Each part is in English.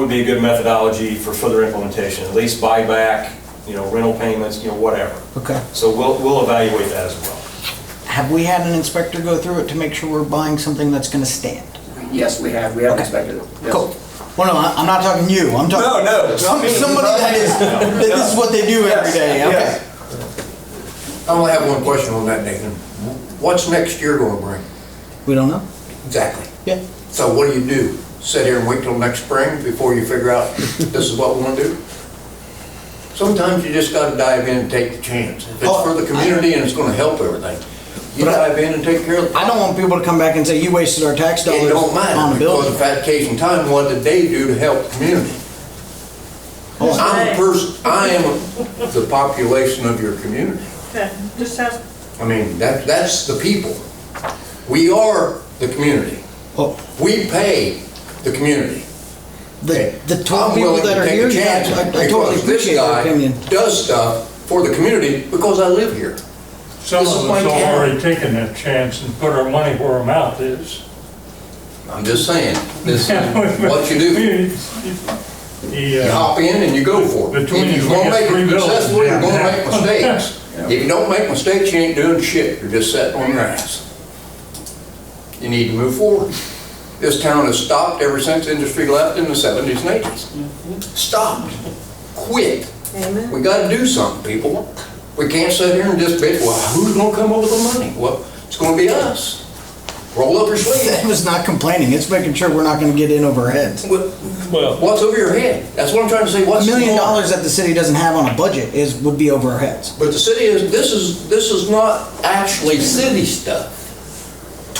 would be a good methodology for further implementation, lease buyback, you know, rental payments, you know, whatever. Okay. So we'll, we'll evaluate that as well. Have we had an inspector go through it to make sure we're buying something that's gonna stand? Yes, we have, we have Okay. inspected it. Yes. Cool. Well, no, I- I'm not talking you, I'm talking. No, no. Some- Somebody that is, that this is what they do every Yes, day, okay. yes. I only have one question on that, Nathan. What's next year gonna bring? We don't know? Exactly. Yeah. So what do you do? Sit here and wait till next spring before you figure out this is what we wanna do? Sometimes you just gotta dive in and take the chance. If it's for the community and it's gonna help everything, you But I- dive in and take care of the I don't want people to come back and say, you wasted our tax It dollars don't on matter, a because building. of that case in time, what did they do to help the community? Oh. I'm a person, I am the population of your community. Okay, just ask, I mean, that, that's the people. We are the community. Oh, We pay the community. The, Okay? the twelve I'm people willing that to are take here, a chance yeah, I I totally because this appreciate your guy opinion. Does stuff for the community because I live here. Some of This us is my have town. already taken that chance and put our money where our mouth is. I'm just saying, this is what you do. The, You uh, hop in and you go for it. If Between you're you, gonna we got make three it bills. successful, you're gonna Yeah. make mistakes. If you don't make mistakes, you ain't doing shit, you're just sitting on your ass. You need to move forward. This town has stopped ever since industry left in the seventies and eighties. Stopped, quit. amen. We gotta do something, people. We can't sit here and just bitch, well, who's gonna come up with the money? Well, it's gonna be us. Roll up your That sleeves. was not complaining, it's making sure we're not gonna get in over our heads. What- well, What's over your head? That's what I'm trying to say, A what's... million going on? dollars that the city doesn't have on a budget is, would be over our heads. But the city is, this is, this is not actually city stuff.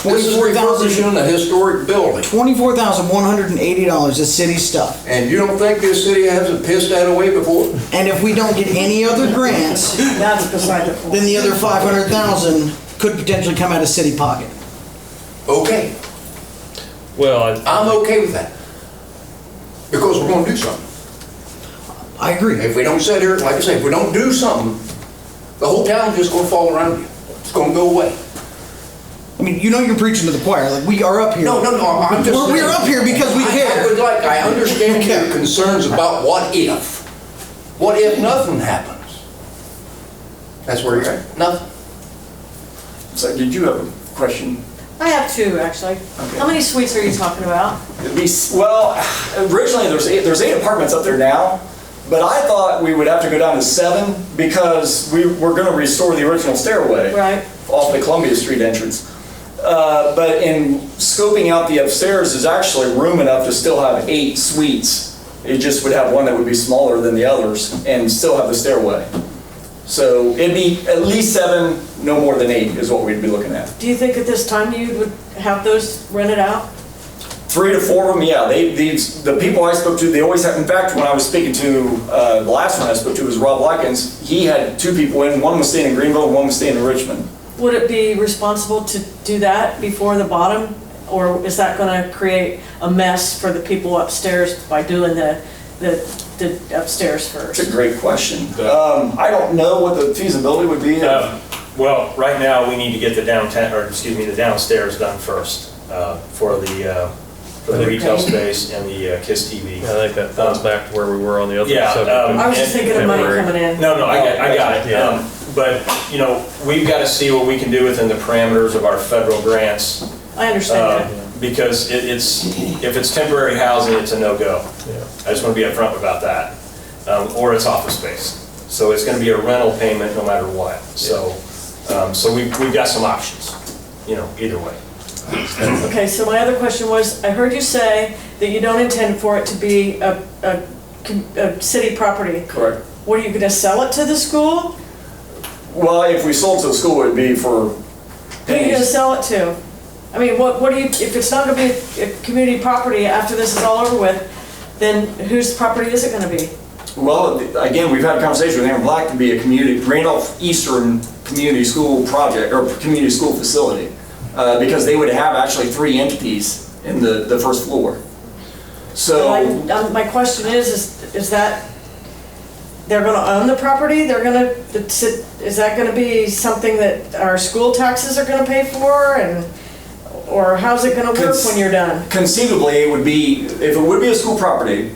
This is Twenty-four thousand, refurbishing a historic building. twenty-four thousand one hundred and eighty dollars is city stuff. And you don't think this city hasn't pissed that away before? And if we don't get any other grants, That's beside the point. then the other five hundred thousand could potentially come out of city pocket. Okay, well, I'm okay with that. Because we're gonna do something. I agree. If we don't sit here, like I say, if we don't do something, the whole town's just gonna fall around you. It's gonna go away. I mean, you know you're preaching to the choir, like, we are up here. No, no, no, I'm just. We're- we're up here because we I- care. I would like, I understand We care. your concerns about what if. What if nothing happens? That's where you're at, nothing. So did you have a question? I have two, actually. How many suites are you talking about? It'd be s- well, originally there's eight, there's eight apartments up there now, but I thought we would have to go down to seven because we were going to restore the original stairway. Right. Off the Columbia Street entrance. Uh, but in scoping out the upstairs, there's actually room enough to still have eight suites. It just would have one that would be smaller than the others and still have the stairway. So it'd be at least seven, no more than eight is what we'd be looking at. Do you think at this time you would have those rented out? Three to four of them, yeah. They, these, the people I spoke to, they always have, in fact, when I was speaking to, uh, the last one I spoke to was Rob Likens. He had two people in, one was staying in Greenville, and one was staying in Richmond. Would it be responsible to do that before the bottom? Or is that gonna create a mess for the people upstairs by doing the, the the upstairs It's a first? great question. Um, I don't know what the feasibility would be. Uh, Well, right now, we need to get the downtown, or excuse me, the downstairs done first uh, for the, uh, for the retail space and the uh, KISS TV. I think that Um, thoughts back to where we were on the other Yeah, subject. um, I was just thinking of money Temporary. coming in. No, no, I got, I got it. Oh, Yeah. Um, But, you know, we've got to see what we can do within the parameters of our federal grants. I Oh, uh, understand that. Because it- it's, if it's temporary housing, it's a no-go. I just want to be upfront about that. Um, Or it's office space. So it's going to be a rental payment no matter what. So, um, so we- we've got some options, you know, either way. Okay, so my other question was, I heard you say that you don't intend for it to be a, a, a city property. Correct. What, are you gonna sell it to the school? Well, if we sold to the school, it'd be Who for are you gonna pennies. sell it to? I mean, what, what do you, if it's not gonna be a community property after this is all over with, then whose property is it gonna be? Well, again, we've had a conversation with Aaron Black to be a community, Randolph Eastern Community School project, or community school facility. Uh, because they would have actually three entities in the, the first floor. So. I- um, My question is, is, is that, they're gonna own the property, they're gonna, it's- is that gonna be something that our school taxes are gonna pay for, and, or how's it gonna work when you're done? Conceivably, it would be, if it would be a school property,